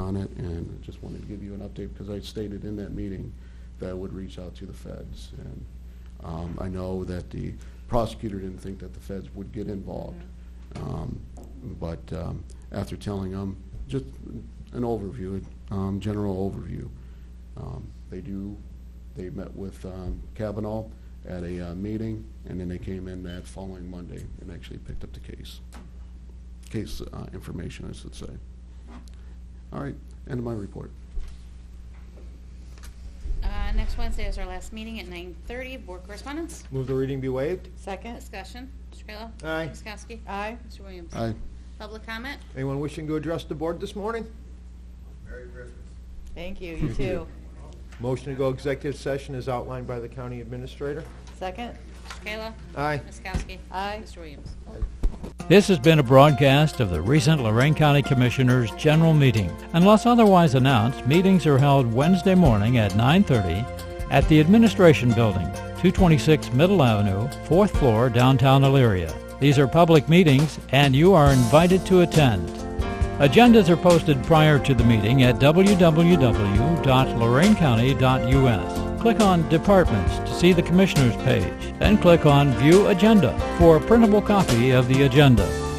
on it, and I just wanted to give you an update, because I stated in that meeting that I would reach out to the feds. And um, I know that the prosecutor didn't think that the feds would get involved. Um, But um, after telling them, just an overview, um, general overview, um, they do, they met with um, Kavanaugh at a uh, meeting, and then they came in that following Monday and actually picked up the case. Case uh, information, I should say. All right, end of my report. Uh, Next Wednesday is our last meeting at 9:30. Board correspondence? Move the reading be waived. Second. Discussion. Mr. Kayla? Aye. Ms. Kowski? Aye. Mr. Williams? Aye. Public comment? Anyone wishing to address the board this morning? Thank you. You too. Motion to go executive session is outlined by the county administrator. Second. Mr. Kayla? Aye. Ms. Kowski? Aye. Mr. Williams? This has been a broadcast of the recent Lorraine County Commissioners' General Meeting. Unless otherwise announced, meetings are held Wednesday morning at 9:30 at the Administration Building, 226 Middle Avenue, 4th floor, downtown Elyria. These are public meetings, and you are invited to attend. Agendas are posted prior to the meeting at www.lorainecounty.us. Click on Departments to see the Commissioners page, then click on View Agenda for a printable copy of the agenda.